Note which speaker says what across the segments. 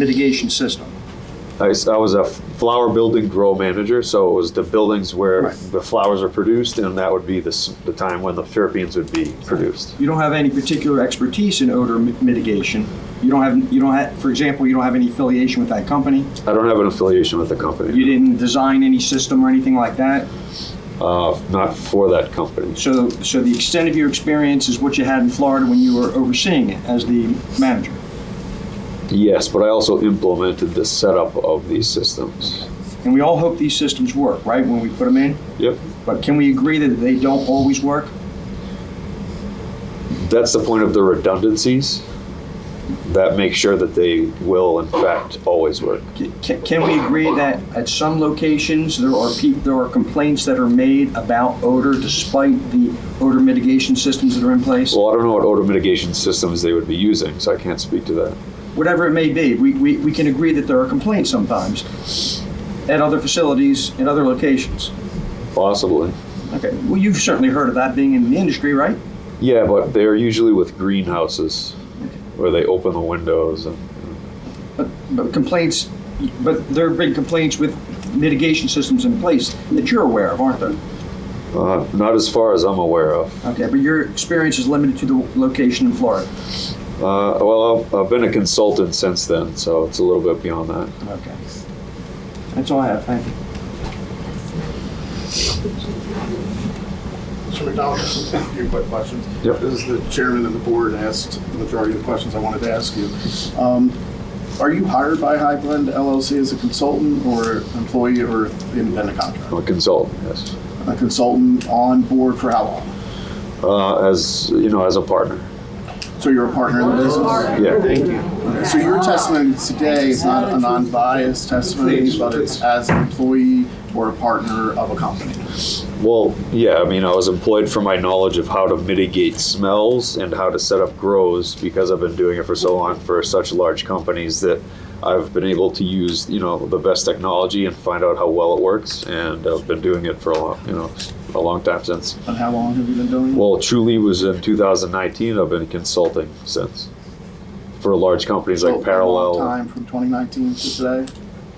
Speaker 1: mitigation system.
Speaker 2: I, s- I was a f- flower building grow manager, so it was the buildings where
Speaker 1: Right.
Speaker 2: the flowers are produced, and that would be the, s- the time when the terpenes would be produced.
Speaker 1: You don't have any particular expertise in odor mi- mitigation. You don't have, you don't have, for example, you don't have any affiliation with that company.
Speaker 2: I don't have an affiliation with the company,
Speaker 1: You didn't design any system or anything like that.
Speaker 2: uh, not for that company.
Speaker 1: So, so the extent of your experience is what you had in Florida when you were overseeing it as the manager.
Speaker 2: Yes, but I also implemented the setup of these systems.
Speaker 1: And we all hope these systems work, right, when we put them in?
Speaker 2: Yep,
Speaker 1: But can we agree that they don't always work?
Speaker 2: that's the point of the redundancies that make sure that they will, in fact, always work.
Speaker 1: Can, can we agree that at some locations, there are peop there are complaints that are made about odor despite the odor mitigation systems that are in place?
Speaker 2: Well, I don't know what odor mitigation systems they would be using, so I can't speak to that.
Speaker 1: Whatever it may be, we, we, we can agree that there are complaints sometimes at other facilities, in other locations.
Speaker 2: Possibly.
Speaker 1: Okay, well, you've certainly heard of that being in the industry, right?
Speaker 2: Yeah, but they're usually with greenhouses where they open the windows and
Speaker 1: But, but complaints, but there have been complaints with mitigation systems in place that you're aware of, aren't there?
Speaker 2: uh, not as far as I'm aware of.
Speaker 1: Okay, but your experience is limited to the location in Florida.
Speaker 2: Uh, well, I've, I've been a consultant since then, so it's a little bit beyond that.
Speaker 1: Okay. That's all I have, thank you.
Speaker 3: Mr. McDonald, just a few quick questions.
Speaker 2: Yep.
Speaker 3: As the chairman and the board asked the majority of the questions I wanted to ask you. Um, Are you hired by High Blend LLC as a consultant or employee or independent contractor?
Speaker 2: I'm a consultant, yes.
Speaker 3: A consultant on board for how long?
Speaker 2: Uh, as you know, as a partner.
Speaker 3: So you're a partner in the business?
Speaker 2: Yeah.
Speaker 3: Okay, So your testimony today is not a non-biased testimony, but it's as an employee or a partner of a company?
Speaker 2: Well, yeah. I mean, I was employed for my knowledge of how to mitigate smells and how to set up grows because I've been doing it for so long for such large companies that I've been able to use you know the best technology and find out how well it works. And I've been doing it for a long you know a long time since.
Speaker 3: And how long have you been doing it?
Speaker 2: Well, Truly was in 2019. I've been consulting since for large companies
Speaker 3: So, a
Speaker 2: like
Speaker 3: long
Speaker 2: Parallel.
Speaker 3: Time from 2019 to today?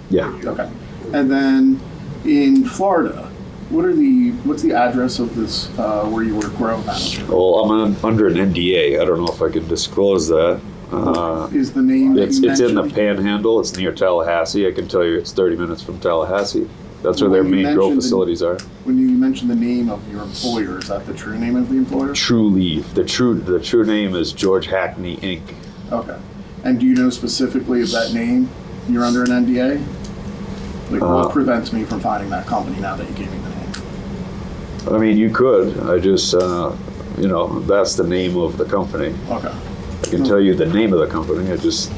Speaker 2: Yeah.
Speaker 3: Okay. And then in Florida, what are the what's the address of this uh, where you were grow manager?
Speaker 2: Well, I'm on, under an NDA. I don't know if I can disclose that. Uh,
Speaker 3: Is the name that
Speaker 2: It's,
Speaker 3: you
Speaker 2: it's in the
Speaker 3: mentioned-
Speaker 2: panhandle. It's near Tallahassee. I can tell you it's 30 minutes from Tallahassee. That's where their
Speaker 3: Well, you
Speaker 2: main grow
Speaker 3: mentioned-
Speaker 2: facilities are.
Speaker 3: when you mentioned the name of your employer? Is that the true name of the employer?
Speaker 2: True Leaf. The true the true name is George Hackney Inc.
Speaker 3: Okay. And do you know specifically of that name? You're under an NDA. Like
Speaker 2: Uh,
Speaker 3: what prevents me from finding that company now that you gave me the name?
Speaker 2: I mean, you could. I just, uh, you know, that's the name of the company.
Speaker 3: Okay.
Speaker 2: I can tell you the name of the company. I just,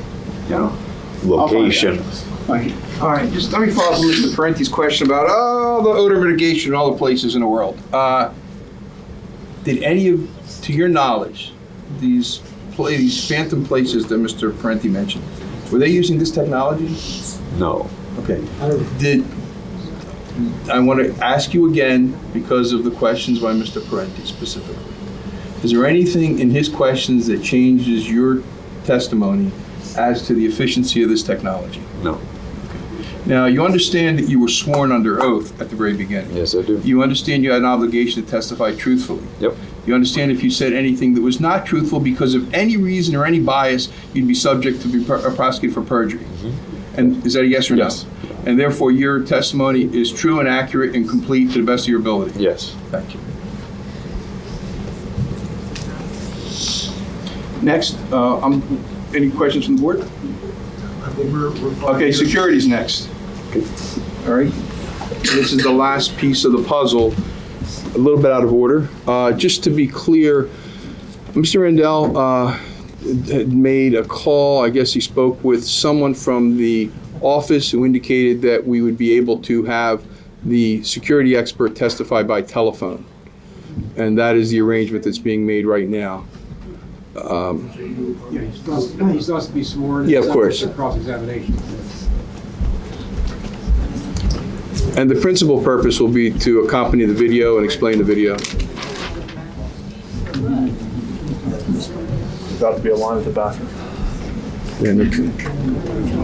Speaker 2: you know,
Speaker 3: I'll find the
Speaker 2: location.
Speaker 3: address. Thank you.
Speaker 4: All right, just let me follow up on Mr. Parenti's question about all the odor mitigation in all the places in the world. Uh, Did any of, to your knowledge, these pla- these phantom places that Mr. Parenti mentioned, were they using this technology?
Speaker 2: No.
Speaker 4: Okay. Did, I want to ask you again because of the questions by Mr. Parenti specifically. Is there anything in his questions that changes your testimony as to the efficiency of this technology?
Speaker 2: No.
Speaker 4: Now, you understand that you were sworn under oath at the very beginning.
Speaker 2: Yes, I do.
Speaker 4: You understand you had an obligation to testify truthfully.
Speaker 2: Yep.
Speaker 4: You understand if you said anything that was not truthful because of any reason or any bias, you'd be subject to be per- uh, prosecuted for perjury. And is that a yes or no?
Speaker 2: Yes.
Speaker 4: And therefore, your testimony is true and accurate and complete to the best of your ability.
Speaker 2: Yes.
Speaker 4: Thank you. Next, uh, um, any questions from the board? Okay, security's next. All right. This is the last piece of the puzzle, a little bit out of order. Uh, Just to be clear, Mr. Rendell uh, had made a call, I guess he spoke with someone from the office who indicated that we would be able to have the security expert testify by telephone. And that is the arrangement that's being made right now.
Speaker 5: Yeah, he's supposed, he's supposed to be sworn.
Speaker 4: Yeah, of course.
Speaker 5: Subject to Cross-examination.
Speaker 4: And the principal purpose will be to accompany the video and explain the video.
Speaker 6: about to be a line at the bathroom.
Speaker 4: And the-